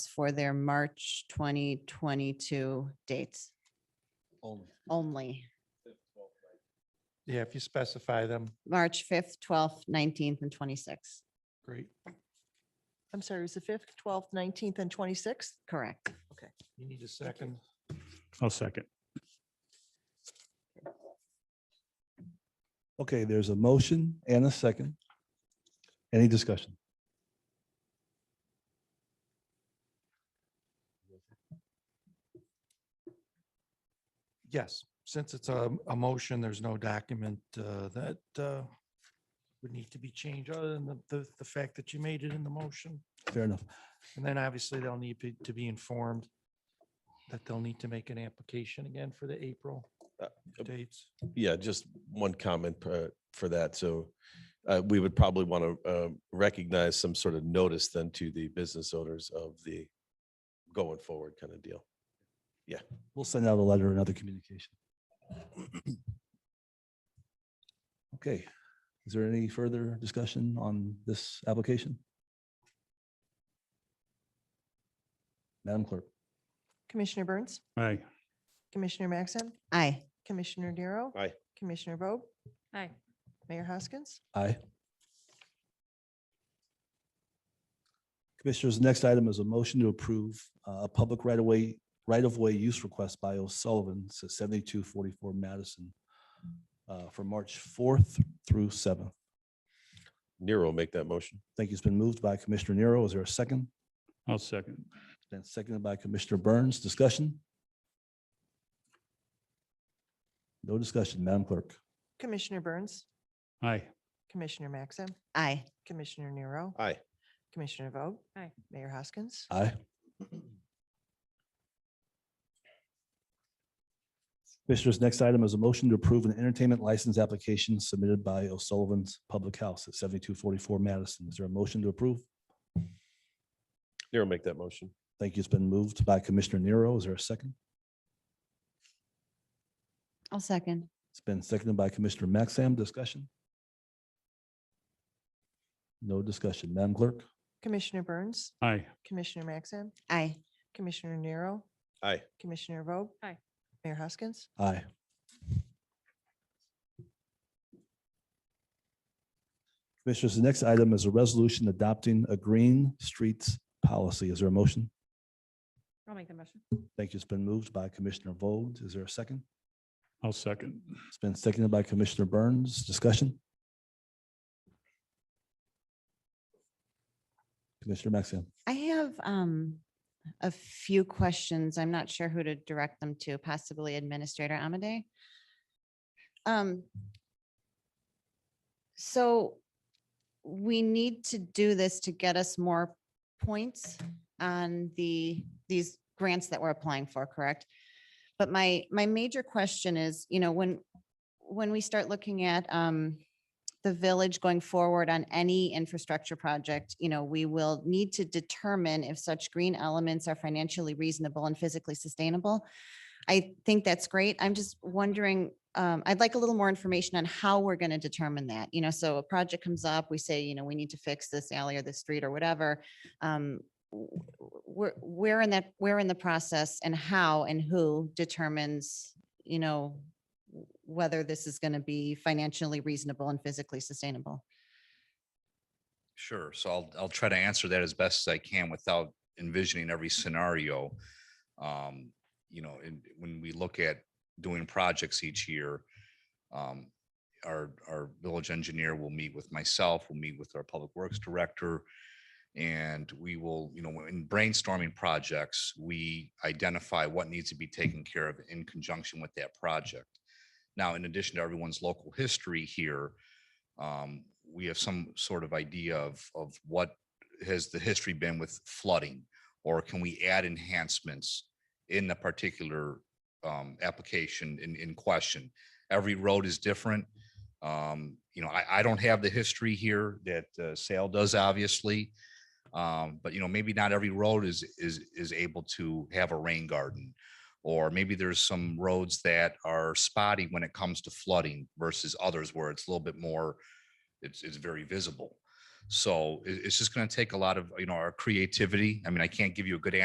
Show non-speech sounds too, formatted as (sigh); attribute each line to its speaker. Speaker 1: for their March 2022 dates
Speaker 2: Only.
Speaker 1: only.
Speaker 3: Yeah, if you specify them,
Speaker 1: March 5th, 12th, 19th, and 26th.
Speaker 3: great.
Speaker 4: I'm sorry, it was the fifth, twelfth, nineteenth, and twenty-sixth?
Speaker 1: Correct.
Speaker 3: You need a second.
Speaker 5: I'll second.
Speaker 2: Okay, there's a motion and a second. Any discussion?
Speaker 3: Yes, since it's a, a motion, there's no document uh, that uh, would need to be changed other than the- the, the fact that you made it in the motion.
Speaker 2: Fair enough.
Speaker 3: And then obviously they'll need be- to be informed that they'll need to make an application again for the April
Speaker 6: Uh, uh,
Speaker 3: dates.
Speaker 6: Yeah, just one comment uh, for that. So uh, we would probably want to recognize some sort of notice then to the business owners of the going forward kind of deal.
Speaker 2: We'll send out a letter and other communication. (clears throat) Okay, is there any further discussion on this application? Madam Clerk,
Speaker 4: Commissioner Burns,
Speaker 5: Aye.
Speaker 4: Commissioner Maxim,
Speaker 1: Aye.
Speaker 4: Commissioner Darrow.
Speaker 6: Aye.
Speaker 4: Commissioner Vogt,
Speaker 7: Aye.
Speaker 4: Mayor Hoskins.
Speaker 2: aye. Commissioners, the next item is a motion to approve uh, a public right-of-way, right-of-way use request by O'Sullivan, so seventy-two forty-four Madison uh, for March fourth through seventh.
Speaker 6: Nero, make that motion.
Speaker 2: Thank you. It's been moved by Commissioner Nero. Is there a second?
Speaker 5: I'll second.
Speaker 2: Then seconded by Commissioner Burns. Discussion? No discussion, Madam Clerk.
Speaker 4: Commissioner Burns,
Speaker 5: Aye.
Speaker 4: Commissioner Maxim,
Speaker 1: Aye.
Speaker 4: Commissioner Nero,
Speaker 6: Aye.
Speaker 4: Commissioner Vogt.
Speaker 7: Aye.
Speaker 4: Mayor Hoskins.
Speaker 2: Aye. Commissioners, next item is a motion to approve an entertainment license application submitted by O'Sullivan's Public House at seventy-two forty-four Madison. Is there a motion to approve?
Speaker 6: Nero, make that motion.
Speaker 2: Thank you. It's been moved by Commissioner Nero. Is there a second?
Speaker 1: I'll second.
Speaker 2: It's been seconded by Commissioner Maxam. Discussion? No discussion. Madam Clerk?
Speaker 4: Commissioner Burns,
Speaker 5: Aye.
Speaker 4: Commissioner Maxim,
Speaker 1: Aye.
Speaker 4: Commissioner Nero,
Speaker 6: Aye.
Speaker 4: Commissioner Vogt.
Speaker 7: Aye.
Speaker 4: Mayor Hoskins.
Speaker 2: Aye. Commissioners, the next item is a resolution adopting a green streets policy. Is there a motion?
Speaker 7: I'll make the motion.
Speaker 2: Thank you. It's been moved by Commissioner Vogt. Is there a second?
Speaker 5: I'll second.
Speaker 2: It's been seconded by Commissioner Burns. Discussion? Commissioner Maxim.
Speaker 1: I have um, a few questions. I'm not sure who to direct them to, possibly Administrator Amade. Um, So we need to do this to get us more points on the, these grants that we're applying for, correct? But my, my major question is, you know, when, when we start looking at um, the village going forward on any infrastructure project, you know, we will need to determine if such green elements are financially reasonable and physically sustainable. I think that's great. I'm just wondering, um, I'd like a little more information on how we're going to determine that. You know, so a project comes up, we say, you know, we need to fix this alley or this street or whatever. Um, w- w- Where, where in that, where in the process and how and who determines, you know, w- whether this is going to be financially reasonable and physically sustainable.
Speaker 8: Sure. So I'll, I'll try to answer that as best as I can without envisioning every scenario. Um, You know, and when we look at doing projects each year, um, our, our village engineer will meet with myself, we'll meet with our public works director. And we will, you know, in brainstorming projects, we identify what needs to be taken care of in conjunction with that project. Now, in addition to everyone's local history here, um, we have some sort of idea of, of what has the history been with flooding? Or can we add enhancements in the particular, um, application in, in question? Every road is different. Um, you know, I, I don't have the history here that, uh, Sale does obviously. Um, but you know, maybe not every road is, is, is able to have a rain garden. Or maybe there's some roads that are spotty when it comes to flooding versus others where it's a little bit more, it's, it's very visible. So it- it's just going to take a lot of, you know, our creativity. I mean, I can't give you a good